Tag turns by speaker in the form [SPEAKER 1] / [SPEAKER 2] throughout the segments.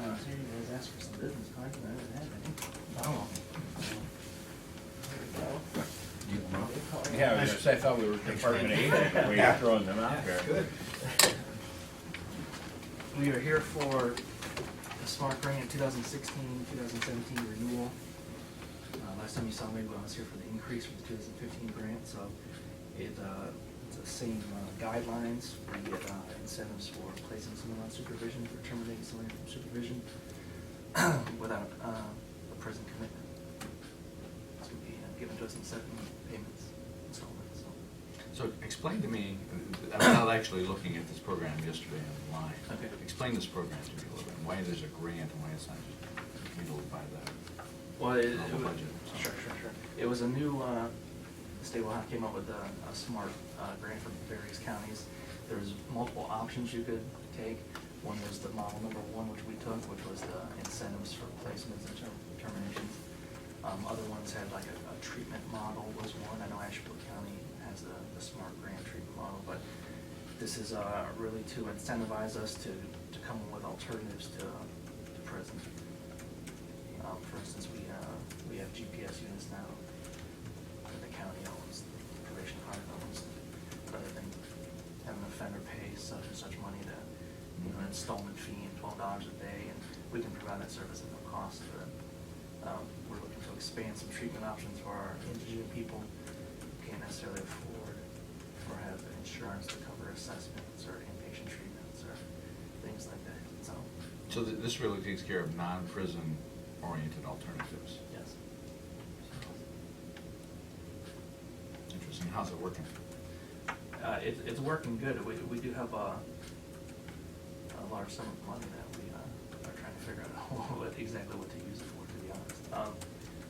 [SPEAKER 1] guys asked for some business cards, but I didn't have any. Oh. There we go. Good call.
[SPEAKER 2] Yeah, I was just, I thought we were Department of Aging, but we are throwing them out there.
[SPEAKER 3] Good.
[SPEAKER 1] We are here for the Smart Grant 2016, 2017 renewal. Uh, Last time you saw me, I was here for the increase for the 2015 grant, so it, uh, it's the same uh, guidelines. We get uh, incentives for placing someone on supervision, for terminating someone from supervision without uh, a prison commitment. It's going to be uh, given to us in seven payments, installments, so.
[SPEAKER 3] So explain to me, I'm not actually looking at this program yesterday online.
[SPEAKER 1] Okay.
[SPEAKER 3] Explain this program to me a little bit, why there's a grant and why it's not just handled by the,
[SPEAKER 1] Well, it, it
[SPEAKER 3] Normal
[SPEAKER 1] was,
[SPEAKER 3] budget.
[SPEAKER 1] sure, sure, sure. It was a new, uh, state of Ohio came up with a, a smart, uh, grant from various counties. There was multiple options you could take. One was the model number one, which we took, which was the incentives for placements and term- terminations. Um, other ones had like a, a treatment model was one. I know Ashburn County has the, the smart grant treatment model, but this is, uh, really to incentivize us to, to come up with alternatives to, to prison. Um, for instance, we, uh, we have GPS units now that the county owns, the probation department owns, rather than having an offender pay such and such money to, you know, installment fee and twelve dollars a day, and we can provide that service at no cost for them. Um, we're looking to expand some treatment options for our indigent people, who can't necessarily afford or have the insurance to cover assessments or inpatient treatments or things like that, so,
[SPEAKER 3] so th- this really takes care of non-prison oriented alternatives.
[SPEAKER 1] yes.
[SPEAKER 3] Interesting, how's it working?
[SPEAKER 1] Uh, it, it's working good. We, we do have a, a large sum of money that we, uh, are trying to figure out what, exactly what to use it for, to be honest. Um,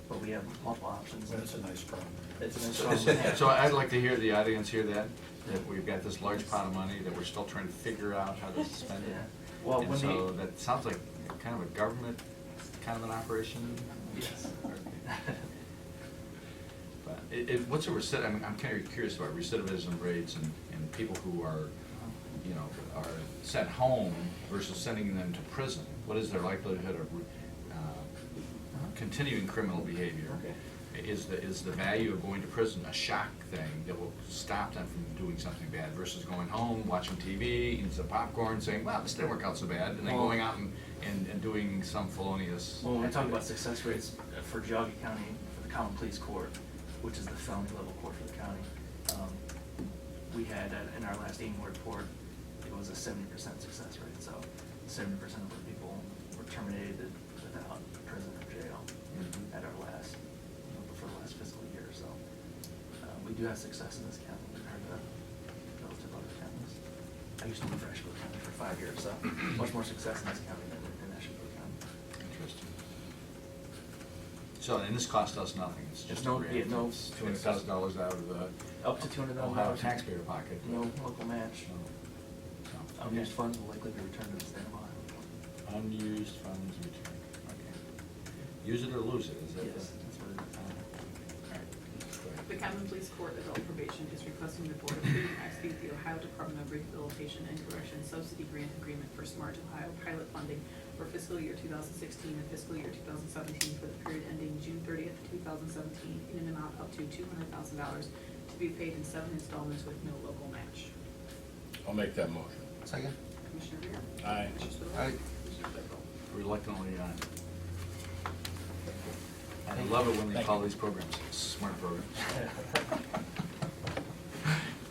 [SPEAKER 1] but we have multiple options.
[SPEAKER 4] That's a nice problem.
[SPEAKER 1] It's an
[SPEAKER 3] So-
[SPEAKER 1] installment. plan.
[SPEAKER 3] So I'd like to hear the audience hear that, that we've got this large pot of money that we're still trying to figure out how to spend it.
[SPEAKER 1] Yeah. Well,
[SPEAKER 3] And
[SPEAKER 1] when
[SPEAKER 3] so
[SPEAKER 1] they-
[SPEAKER 3] that sounds like kind of a government, kind of an operation.
[SPEAKER 1] Yes.
[SPEAKER 3] But it, it, what's a recid, I'm, I'm kind of curious about recidivism rates and, and people who are, you know, are sent home versus sending them to prison. What is their likelihood of, re- uh, continuing criminal behavior?
[SPEAKER 1] Okay.
[SPEAKER 3] Is the, is the value of going to prison a shock thing that will stop them from doing something bad versus going home, watching TV, eating some popcorn, saying, wow, this didn't work out so bad, and then
[SPEAKER 1] Well-
[SPEAKER 3] going out and, and, and doing some felonious.
[SPEAKER 1] Well, when we talk about
[SPEAKER 3] activity.
[SPEAKER 1] success rates for Geauga County, for the Common Pleas Court, which is the felony level court for the county, um, we had, uh, in our last annual report, it was a seventy percent success rate, so seventy percent of the people were terminated without prison or jail
[SPEAKER 3] Mhm.
[SPEAKER 1] at our last, you know, for the last fiscal year, so. Uh, we do have success in this county compared to relative other counties. I used to live in Asheville County for five years, so much more success in this county than in Asheville County.
[SPEAKER 3] Interesting. So, and this cost us nothing, it's just a
[SPEAKER 1] No,
[SPEAKER 3] grant.
[SPEAKER 1] yeah, no.
[SPEAKER 3] Two hundred thousand dollars out of the.
[SPEAKER 1] Up to $200,000.
[SPEAKER 3] Ohio taxpayer pocket.
[SPEAKER 1] No local match.
[SPEAKER 3] So, so-
[SPEAKER 1] Unused funds will likely be returned to the state of Ohio.
[SPEAKER 3] Unused funds returned, okay. Use it or lose it, is that the?
[SPEAKER 1] Yes, that's what it is.
[SPEAKER 3] All right, go ahead.
[SPEAKER 5] The Common Police Court Adult Probation is requesting the Board approve and execute the Ohio Department of Rehabilitation and Correction Subsidy Grant Agreement for Smart Ohio Pilot Funding for fiscal year 2016 and fiscal year 2017 for the period ending June 30th, 2017, in an amount up to $200,000 to be paid in seven installments with no local match.
[SPEAKER 2] I'll make that motion.
[SPEAKER 3] Second.
[SPEAKER 5] Commissioner Rea?
[SPEAKER 2] Aye.
[SPEAKER 5] Commissioner Spudler?
[SPEAKER 3] Aye.
[SPEAKER 5] Commissioner Claypool?
[SPEAKER 3] Reluctantly, aye. I love it when they
[SPEAKER 2] Thank
[SPEAKER 3] call
[SPEAKER 2] you.
[SPEAKER 3] these programs smart programs.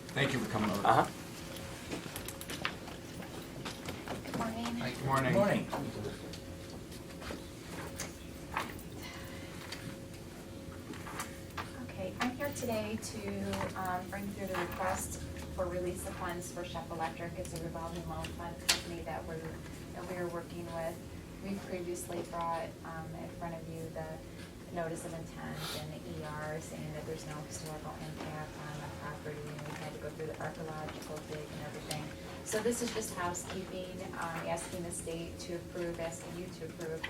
[SPEAKER 3] Thank you for coming over.
[SPEAKER 1] Uh-huh.
[SPEAKER 6] Morning.
[SPEAKER 3] Hi, Good morning.
[SPEAKER 2] Morning.
[SPEAKER 6] Okay, I'm here today to um, bring through the request for release of funds for Chef Electric. It's a revolving loan fund company that we're, that we're working with. We previously brought um, in front of you the notice of intent and the ER saying that there's no historical impact on the property. And we had to go through the archaeological dig and everything. So this is just housekeeping, um, asking the state to approve, asking you to approve